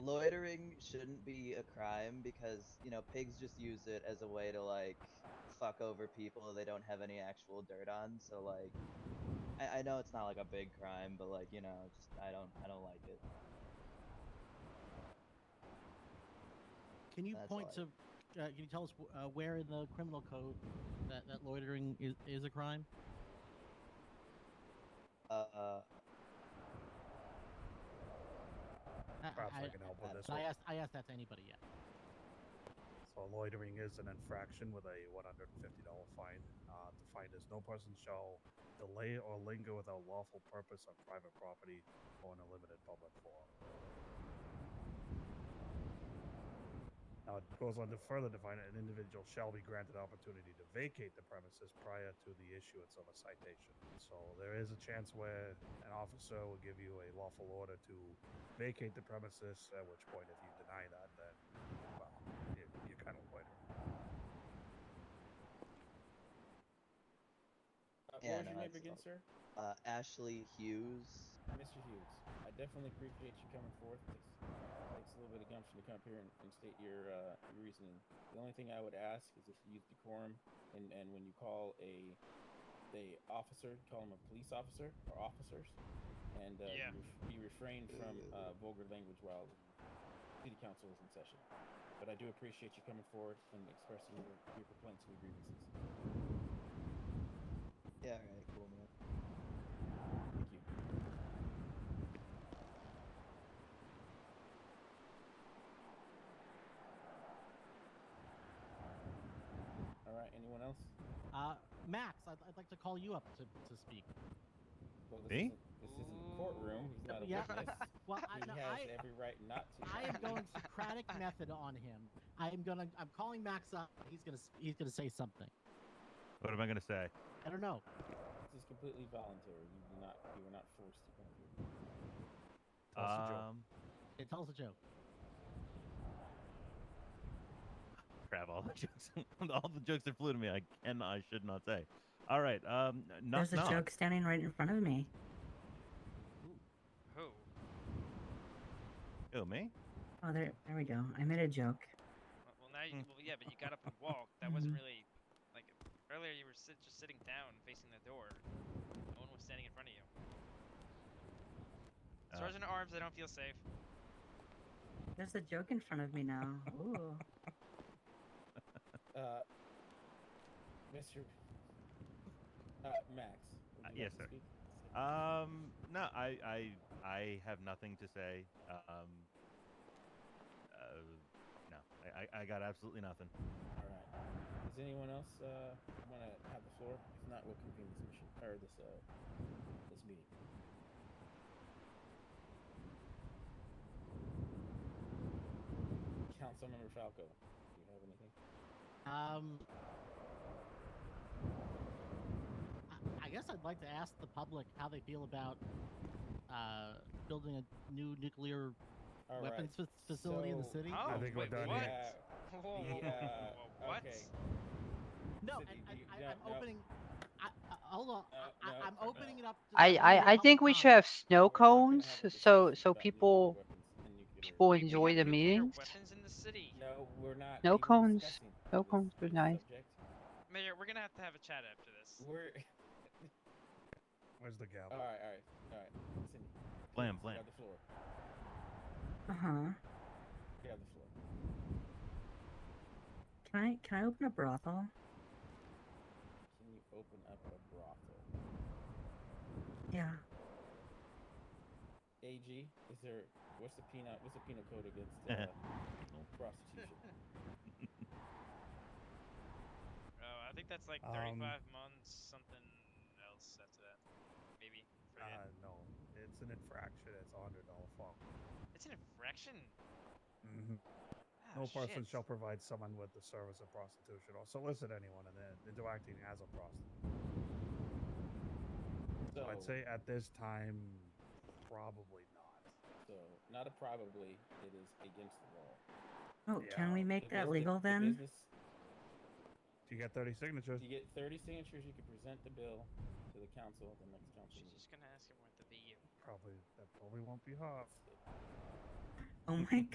loitering shouldn't be a crime because you know pigs just use it as a way to like fuck over people they don't have any actual dirt on. So like, I, I know it's not like a big crime, but like you know, just I don't I don't like it. Can you That's point why. to? Uh, can you tell us wh- uh, where in the criminal code that, that loitering is, is a crime? Uh, I, Perhaps I, I, can help with uh, this but I one. asked. I asked that to anybody yet. So loitering is an infraction with a one hundred and fifty dollar fine. Uh, the fine is no person shall delay or linger without lawful purpose on private property or in a limited public forum. Now it goes on to further define it: an individual shall be granted opportunity to vacate the premises prior to the issuance of a citation. So there is a chance where an officer will give you a lawful order to vacate the premises. At which point, if you deny that, then well, you, you kind of loiter. Uh, Yeah, what no, was your name that's again, all- sir? uh, Ashley Hughes. Mr. Hughes. I definitely appreciate you coming forth. It takes, takes a little bit of gumption to come up here and, and state your, uh, your reasoning. The only thing I would ask is if you use decorum, and, and when you call a a officer, call him a police officer or officers, and uh, Yeah. you, ref- you refrain from uh, vulgar language while city council is in session. But I do appreciate you coming forward and expressing your, your complaints and your grievances. Yeah, all right, cool man. Thank you. All right. Anyone else? Uh, Max, I'd, I'd like to call you up to, to speak. Well, Me? Isn't, this isn't a courtroom. He's not a Yeah. witness. Well, He I, no, has I, every right not to. I am going Socratic method on him. I am gonna. I'm calling Max up. He's gonna. s- He's gonna say something. What am I gonna say? I don't know. This is completely voluntary. You do not. You were not forced to come here. Tell us a joke. Um, Hey, tell us a joke. crap! All the jokes, all the jokes that flew to me, I can, I should not say. All right. Um, knock, There's a knock. joke standing right in front of me. Who? Who, me? Oh, there, there we go. I made a joke. Well, well, now Hmm. you. Well, yeah, but you got up and walked. That wasn't Mm-hmm. really like earlier. You were sit, just sitting down, facing the door. No one was standing in front of you. Uh, Sergeant at Arms, I don't feel safe. There's a joke in front of me now. Ooh. Uh, Mr. Uh, Max. would Uh, you yes, like to sir. speak? Um, no, I, I, I have nothing to say. Um, uh, no, I, I, I got absolutely nothing. All right. Does anyone else uh, want to have the floor? If not, we'll convene this mission or this uh, this meeting. Councilmember Falco, do you have anything? Um, I, I guess I'd like to ask the public how they feel about uh, building a new nuclear All right. weapons fac- facility in the so- city. Oh, I think we're wait, done what? here. Whoa, whoa, whoa, Yeah, whoa, whoa, what? okay. No, City, and, you- I, no, I, I'm no. opening. I, I, uh, hold on, No, I, no, I, I'm no. opening it up. To I, further I, I public think we should comment. have snow We're not gonna cones have a so discussion so about nuclear people weapons and nuclear- people We enjoy have the nuclear meetings. Weapons in the city. No, we're not. No even cones. discussing No this cones were nice. subject. Mayor, we're gonna have to have a chat after this. We're Where's the gavel? all right. All right. All right. Listen. please, Blam, you blam. have the floor. Uh huh. You have the floor. Can I can I open a brothel? Can you open up a brothel? Yeah. AG, is there what's the penal what's the penal code against uh, prostitution? Oh, I think that's like Um, 35 months, something else after that. Maybe. Uh, Forget. no, it's an infraction. It's a hundred dollar fine. it's an infraction. Mm-hmm. Ah, No person shit. shall provide someone with the service of prostitution or solicit anyone in it into acting as a prostitute. So, So I'd say at this time, probably not. so not a probably, it is against the law. Oh, can we Yeah. make The that busi- legal the then? business- If you get thirty signatures, you get thirty signatures, you can present the bill to the council at the next council She's meeting. just gonna ask him what the VU. probably that probably won't be hard. Oh my